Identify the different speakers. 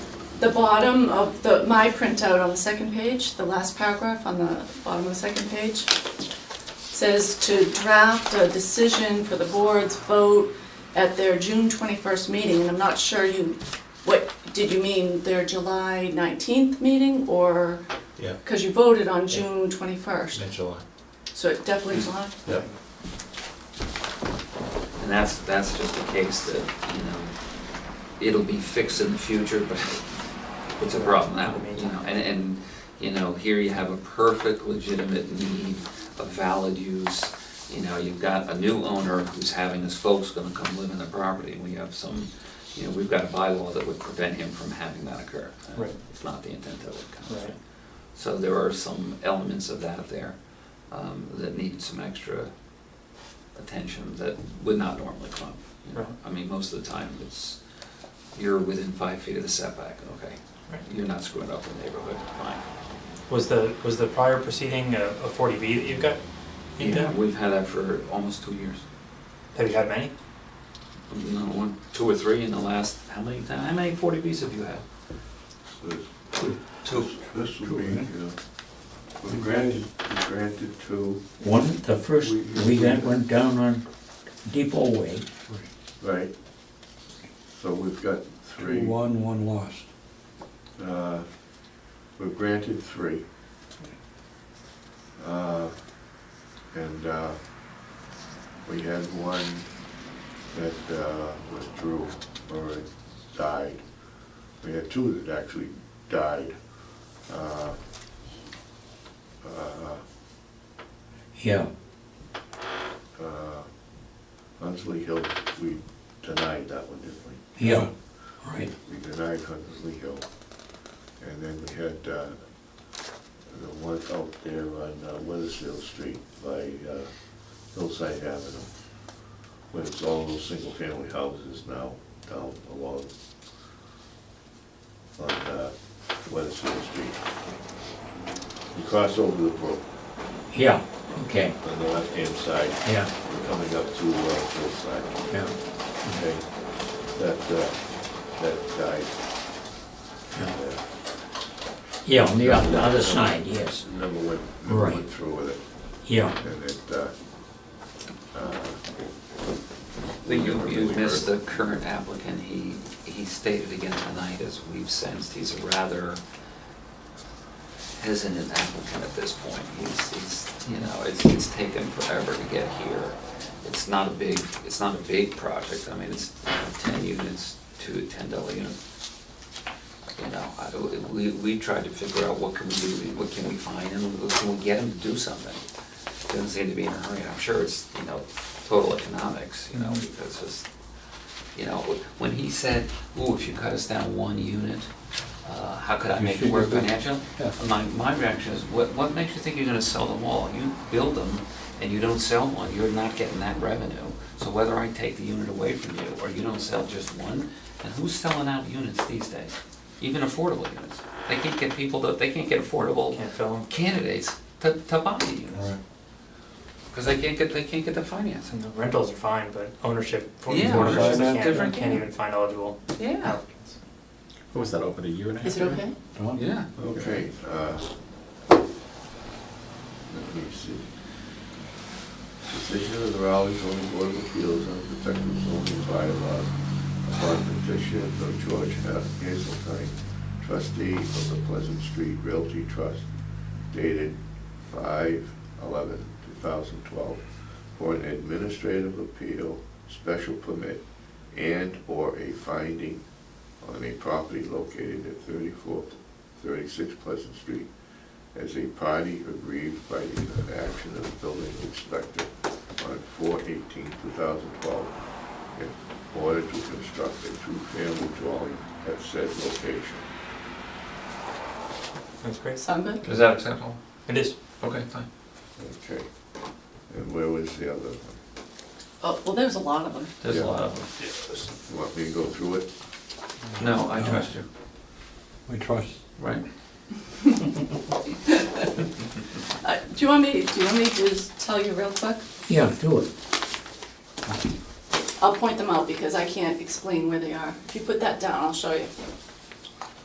Speaker 1: the bottom of the, my printout on the second page, the last paragraph on the bottom of the second page, says to draft a decision for the board's vote at their June twenty-first meeting, and I'm not sure you, what, did you mean their July nineteenth meeting, or?
Speaker 2: Yeah.
Speaker 1: Cause you voted on June twenty-first,
Speaker 2: July.
Speaker 1: so it definitely July.
Speaker 2: Yeah.
Speaker 3: And that's, that's just a case that, you know, it'll be fixed in the future, but it's a problem now, you know, and, and, you know, here you have a perfect legitimate need, a valid use. You know, you've got a new owner who's having his folks gonna come live in the property, and we have some, you know, we've got a bylaw that would prevent him from having that occur.
Speaker 4: Right.
Speaker 3: It's not the intent of it, kind of
Speaker 4: Right.
Speaker 3: thing. So there are some elements of that there, um, that need some extra attention that would not normally come. you know.
Speaker 4: Right.
Speaker 3: I mean, most of the time, it's, you're within five feet of the setback, okay?
Speaker 4: Right.
Speaker 3: You're not screwing up the neighborhood, fine.
Speaker 4: Was the, was the prior proceeding a a 40B that you've got? inked
Speaker 3: Yeah,
Speaker 4: out?
Speaker 3: We've had that for almost two years.
Speaker 4: Have you had many?
Speaker 3: No, one, two or three in the last, how many, ti- how many forty Bs have you had?
Speaker 5: This-
Speaker 3: Two.
Speaker 5: This will be, uh, we granted, we granted two,
Speaker 6: One, the first, we got one down on Depot Way,
Speaker 5: right? So we've got three.
Speaker 7: One, one lost.
Speaker 5: Uh, We've granted three. Uh, And uh, we had one that uh, withdrew or died. We had two that actually died. Uh, uh,
Speaker 6: yeah.
Speaker 5: uh, Huntsley Hill, we denied that one, didn't we?
Speaker 6: Yeah, right.
Speaker 5: We denied Huntersley Hill. And then we had uh, the one out there on uh, Weathersfield Street by uh, Hillside Avenue, where it's all those single-family houses now down along on uh, Weathersfield Street. You cross over the brook
Speaker 6: Yeah, okay,
Speaker 5: on the left-hand side,
Speaker 6: yeah,
Speaker 5: you're coming up to uh, Hillside
Speaker 6: yeah,
Speaker 5: okay, that, uh, that died. And, uh,
Speaker 6: yeah, on the oth- other side, yes,
Speaker 5: Never went, never
Speaker 6: Right.
Speaker 5: went through with it,
Speaker 6: yeah.
Speaker 5: and it, uh, uh,
Speaker 3: But you,
Speaker 5: never
Speaker 3: you
Speaker 5: really
Speaker 3: missed the
Speaker 5: heard.
Speaker 3: current applicant, he, he stated again tonight, as we've sensed, he's a rather hesitant applicant at this point. He's, he's, you know, it's, it's taken forever to get here. It's not a big, it's not a big project, I mean, it's you know, ten units to ten dollar unit. You know, I, we, we tried to figure out what can we do, what can we find him, can we get him to do something? Doesn't seem to be in a hurry, and I'm sure it's, you know, total economics, you know,
Speaker 7: Mm-hmm.
Speaker 3: because it's, you know, when he said, ooh, if you cut us down one unit, uh, how could I
Speaker 7: You
Speaker 3: make it
Speaker 7: should
Speaker 3: work
Speaker 7: do it.
Speaker 3: financially?
Speaker 7: Yeah.
Speaker 3: My, my reaction is, what, what makes you think you're gonna sell them all? You build them and you don't sell one, you're not getting that revenue. So whether I take the unit away from you or you don't sell just one, and who's selling out units these days? Even affordable units. They can't get people to, they can't get affordable
Speaker 4: Can't fill them?
Speaker 3: candidates to, to buy the units.
Speaker 7: Right.
Speaker 3: Cause they can't get, they can't get the financing.
Speaker 4: And the rentals are fine, but ownership, for
Speaker 3: Yeah,
Speaker 4: ownership,
Speaker 7: ownership's
Speaker 4: they
Speaker 7: a
Speaker 4: can't,
Speaker 3: different
Speaker 4: can't
Speaker 3: game.
Speaker 4: even find eligible
Speaker 3: Yeah.
Speaker 4: applicants.
Speaker 2: What was that, open a year and a half?
Speaker 1: Is it
Speaker 2: ago?
Speaker 1: okay?
Speaker 3: Yeah.
Speaker 5: okay, uh, let me see. Decision of the Raleigh zoning board of appeals on protective zoning bylaw upon petition of George F. Hazeltine, trustee of the Pleasant Street Realty Trust, dated 5/11/2012, for an administrative appeal, special permit, and/or a finding on a property located at 34, 36 Pleasant Street as a party aggrieved by the inaction of the building inspector on 4/18/2012 in order to construct a two-family dwelling at said location.
Speaker 4: That's great.
Speaker 1: Sound good?
Speaker 3: Is that acceptable?
Speaker 4: It is.
Speaker 3: Okay, fine.
Speaker 5: Okay, and where was the other one?
Speaker 1: Oh, well, there's a lot of them.
Speaker 3: There's a
Speaker 5: Yeah.
Speaker 3: lot of
Speaker 5: You Want me to go through it?
Speaker 3: them. No, I trust you.
Speaker 7: We trust.
Speaker 3: Right.
Speaker 1: Uh, do you want me, do you want me to just tell you real quick?
Speaker 6: Yeah, do it.
Speaker 1: I'll point them out because I can't explain where they are. If you put that down, I'll show you.